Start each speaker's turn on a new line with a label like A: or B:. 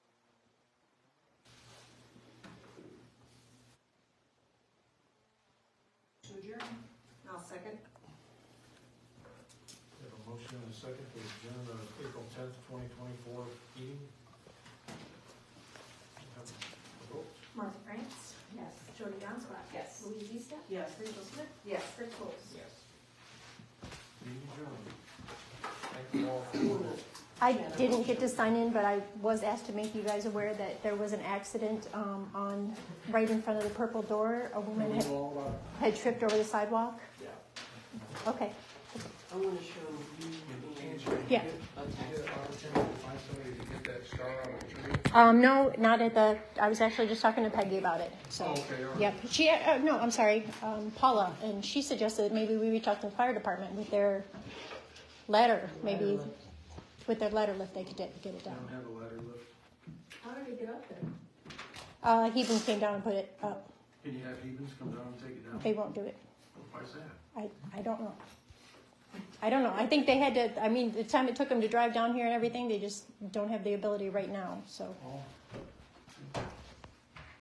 A: second, the agenda of April tenth, twenty twenty-four meeting. Have a vote.
B: Martha France,
C: Yes.
B: Jody Donskoy.
C: Yes.
B: Louise Easton.
C: Yes.
B: Rachel Smith.
C: Yes.
B: Chris Coles.
A: Yes. Meeting adjourned. Thank you all for.
D: I didn't get to sign in, but I was asked to make you guys aware that there was an accident um, on, right in front of the purple door. A woman had- had tripped over the sidewalk.
A: Yeah.
D: Okay,
C: I want to show you.
D: yeah.
C: Okay.
A: Get an opportunity to find somebody to get that star on the tree.
D: Um, no, not at the, I was actually just talking to Peggy about it, so.
A: Oh, okay, all right.
D: Yep, she, uh, no, I'm sorry, um, Paula, and she suggested that maybe we reach out to the fire department with their letter, maybe with their letter lift, they could get get it
A: I don't
D: down.
A: have a ladder lift.
B: How did he get up there?
D: Uh, Heben came down and put it up,
A: Can you have Evans come down and take it down?
D: they won't do it.
A: Why's that?
D: I, I don't know. I don't know. I think they had to, I mean, the time it took them to drive down here and everything, they just don't have the ability right now, so.
A: Oh.